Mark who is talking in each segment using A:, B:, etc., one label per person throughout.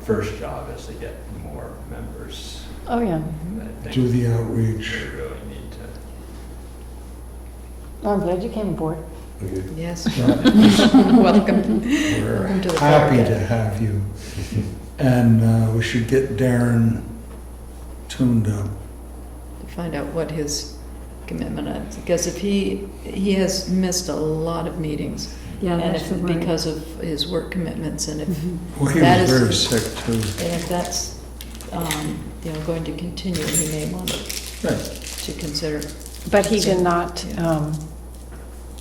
A: first job is to get more members.
B: Oh, yeah.
A: I think
C: Do the
A: We
C: outreach.
A: really need to.
B: Well, I'm glad you came aboard.
C: Okay.
D: Yes,
C: So
D: welcome.
C: We're
D: Welcome to the
C: happy
D: market.
C: to have you. And uh, we should get Darren tuned up.
D: To find out what his commitment is, because if he, he has missed a lot of meetings.
E: Yeah,
D: and
E: that's Mm-hmm.
D: if-
E: the word.
D: Because of his work commitments, and if, and
C: Well, he
D: That
C: was
D: is-
C: very sick too.
D: if that's, um, you know, going to continue, he may want
C: Right.
D: to consider.
B: But he did not
D: Yeah.
B: um,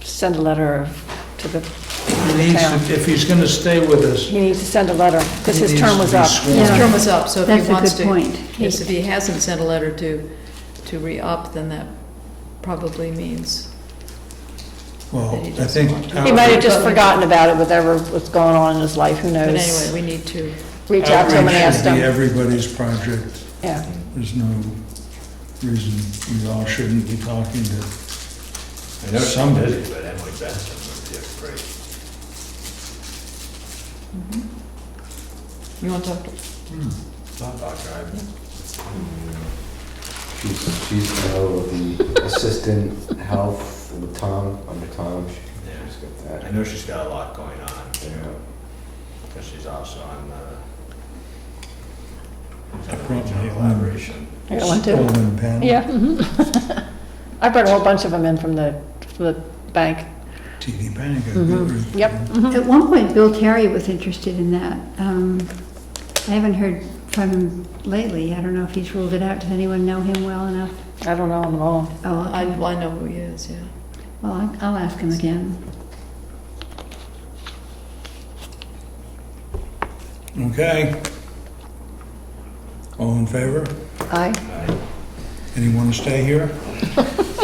B: send a letter of- to the
C: He needs
B: town.
C: to- If he's going to stay with us,
B: He needs to send a letter, because
C: He
B: his
C: needs
B: term
C: to
B: was
C: be
B: up.
C: sworn.
D: His
E: Yeah.
D: term is up, so if
E: That's
D: he
E: a
D: wants
E: good
D: to,
E: point.
D: yes, if he hasn't sent a letter to, to re-up, then that probably means.
C: well,
D: That he
C: I
D: doesn't
C: think.
D: want to.
B: He might have
C: outreach-
B: just forgotten about it, whatever was going on in his life, who
D: But
B: knows?
D: anyway, we need to,
B: Reach out to him and
C: outreach
B: ask
C: should be
B: him.
C: everybody's project.
B: Yeah.
C: There's no reason we all shouldn't be talking to,
A: I know some
C: Some-
A: busy, but Emily Benson would be a great.
E: Mm-hmm.
D: you want to talk to
A: thought doctor, I'm-
F: She's, she's now the assistant health with Tom, under Tom. She-
A: yeah.
F: She's got
A: I
F: that.
A: know she's got a lot going on,
F: Yeah.
A: because she's also on the
C: I brought my own.
A: collaboration.
B: I got one too.
C: Stolen pen.
B: Yeah. mhm. I brought a whole bunch of them in from the, from the bank.
C: TD Bank. I
B: Mhm.
C: believe.
B: Yep. mhm.
E: At one point, Bill Terry was interested in that. Um, I haven't heard from him lately. I don't know if he's ruled it out. Does anyone know him well enough?
B: I don't know them at all.
E: Oh,
D: I,
E: okay.
D: I know who he is, yeah.
E: Well, I- I'll ask him again.
C: Okay. All in favor?
B: I,
C: Anyone to stay here?